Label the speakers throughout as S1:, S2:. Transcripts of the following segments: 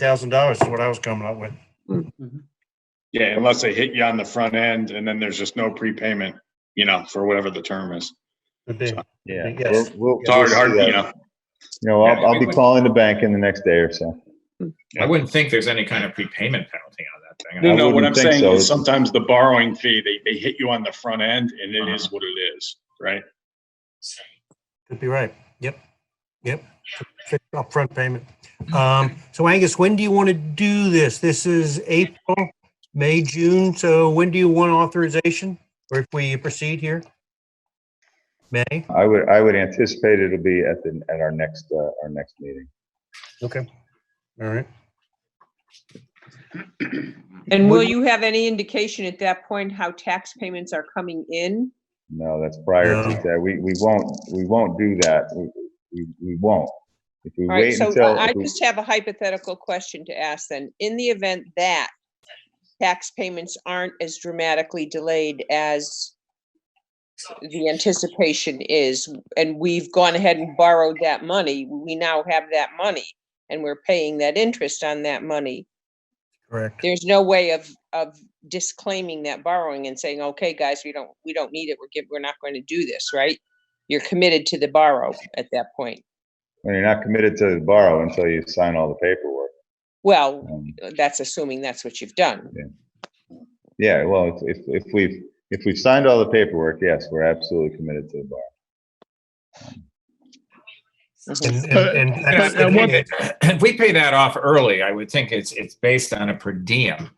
S1: thousand dollars is what I was coming up with.
S2: Yeah, unless they hit you on the front end and then there's just no prepayment, you know, for whatever the term is.
S1: Would be.
S3: Yeah.
S1: Yes.
S3: We'll, we'll,
S2: It's hard,
S3: we'll
S2: hard,
S3: see that.
S2: you know,
S3: You know, I'll, I'll be calling the bank in the next day or so.
S4: I wouldn't think there's any kind of prepayment penalty on that thing.
S2: no, no, what
S3: wouldn't
S2: I'm
S3: think
S2: saying
S3: so.
S2: is sometimes the borrowing fee, they, they hit you on the front end and it
S3: Uh-huh.
S2: is what it is, right?
S1: Could be right. Yep. Yep. Fixed Upfront payment. Um, so Angus, when do you want to do this? This is April, May, June. So when do you want authorization? Or if we proceed here? May?
S3: I would, I would anticipate it'll be at the, at our next, uh, our next meeting.
S1: Okay. All right.
S5: And will you have any indication at that point how tax payments are coming in?
S3: No, that's prior
S1: No.
S3: to that. We, we won't, we won't do that. We, we, we won't. If we
S5: All right,
S3: wait
S5: so uh,
S3: until,
S5: I I just have a hypothetical question to ask then. In the event that tax payments aren't as dramatically delayed as the anticipation is, and we've gone ahead and borrowed that money, we now have that money and we're paying that interest on that money.
S1: Correct.
S5: There's no way of, of disclaiming that borrowing and saying, okay, guys, we don't, we don't need it. We're, giv- we're not going to do this, right? You're committed to the borrow at that point.
S3: when you're not committed to borrow until you sign all the paperwork.
S5: Well,
S3: Um,
S5: that's assuming that's what you've done.
S3: Yeah, well, if, if, if we've, if we've signed all the paperwork, yes, we're absolutely committed to the borrow.
S1: And,
S2: Uh,
S1: and, and
S4: Yeah,
S1: that's the
S4: and
S1: thing
S4: what-
S1: that-
S4: If we pay that off early, I would think it's, it's based on a per diem,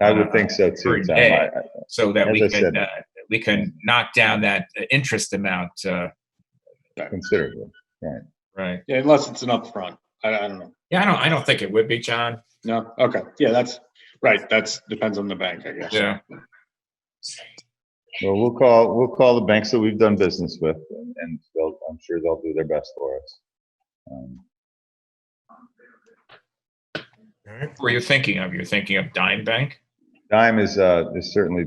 S3: I
S5: Uh,
S3: would think so too,
S4: Every
S3: Tom.
S4: day.
S3: I- I-
S4: so that we
S3: As I
S4: could,
S3: said.
S4: uh, we could knock down that uh, interest amount, uh,
S3: Considerably.
S4: right?
S2: Yeah, unless it's an upfront. I, I don't know.
S4: Yeah, I don't, I don't think it would be, John.
S2: No, okay, yeah, that's, right, that's, depends on the bank, I guess.
S4: Yeah.
S3: Well, we'll call, we'll call the banks that we've done business with and- and they'll, I'm sure they'll do their best for us. Um,
S1: All right.
S4: What were you thinking of? You're thinking of Dime Bank?
S3: Dime is, uh, is certainly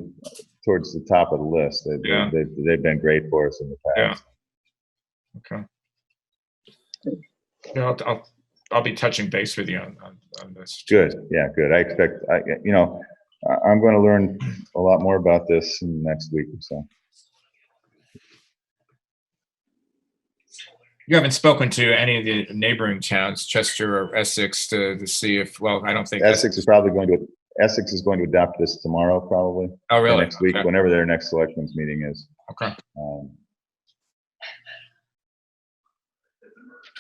S3: towards the top of the list. They've,
S4: Yeah.
S3: they've, they've been great for us in the past.
S4: Okay. Yeah, I'll, I'll, I'll be touching base with you on, on, on this.
S3: Good, yeah, good. I expect, I, you know, I, I'm going to learn a lot more about this in the next week or so.
S4: You haven't spoken to any of the neighboring towns, Chester or Essex, to, to see if, well, I don't think.
S3: Essex is probably going to, Essex is going to adopt this tomorrow, probably. or
S4: Oh, really?
S3: Next week,
S4: Okay,
S3: whenever their next selectmen's meeting is.
S4: Okay.
S3: Um,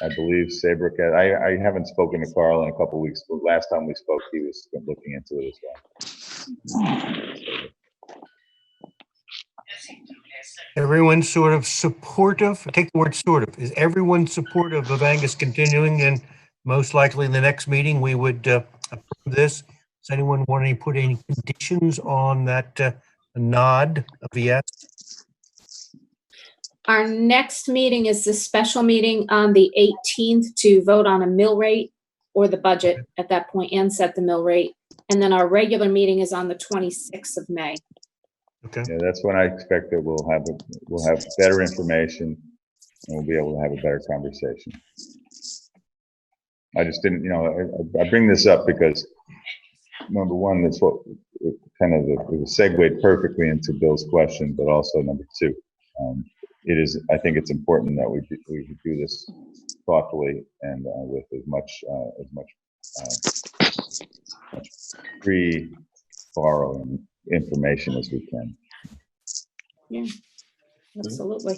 S3: I believe Sabrick, I, I haven't spoken to Carl in a couple weeks, but last time we spoke, he was looking into it as well.
S1: Everyone's sort of supportive, take the word sort of, is everyone supportive of Angus continuing? And most likely in the next meeting, we would uh, approve this. Does anyone want to put any conditions on that uh, nod of yes?
S6: Our next meeting is the special meeting on the 18th to vote on a mill rate or the budget at that point and set the mill rate. And then our regular meeting is on the 26th of May.
S1: Okay,
S3: Yeah, that's when I expect that we'll have, a- we'll have better information and we'll be able to have a better conversation. I just didn't, you know, I- I, I bring this up because number one, that's what, it kind of, it was segued perfectly into Bill's question, but also number two. um, It is, I think it's important that we, do- we do this thoughtfully and uh, with as much, uh, as much, uh, much pre-borrowing information as we can.
S6: Absolutely.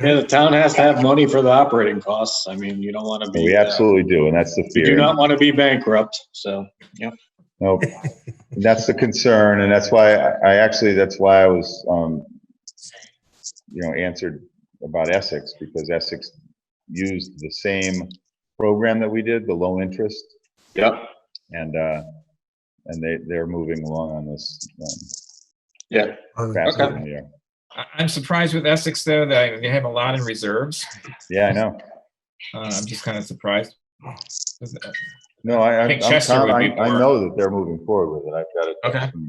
S2: Yeah, the town has to have money for the operating costs. I mean, you don't want to be.
S3: We
S2: uh,
S3: absolutely do, and that's the
S2: You do
S3: fear.
S2: not want to be bankrupt, so.
S3: Nope. And That's the concern, and that's why I I actually, that's why I was, um, you know, answered about Essex, because Essex used the same program that we did, the low interest,
S2: Yep.
S3: and, uh, and they, they're moving along on this um,
S2: Yeah,
S3: faster than we are.
S4: I- I'm surprised with Essex, though, that they have a lot in reserves.
S3: Yeah, I know.
S4: Uh, I'm just kind of surprised.
S3: No, I, I,
S4: think
S3: I'm
S4: Chester
S3: con-
S4: would
S3: I
S4: be
S3: I
S4: more-
S3: know that they're moving forward with it. I've got it. Hmm.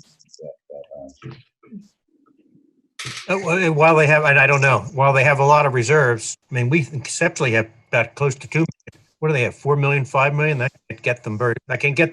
S4: Okay.
S1: Uh, well, and While they have, and I don't know, while they have a lot of reserves, I mean, we conceptually have about close to two. million. what do they have, 4 million, 5 million? That can get them very, that can get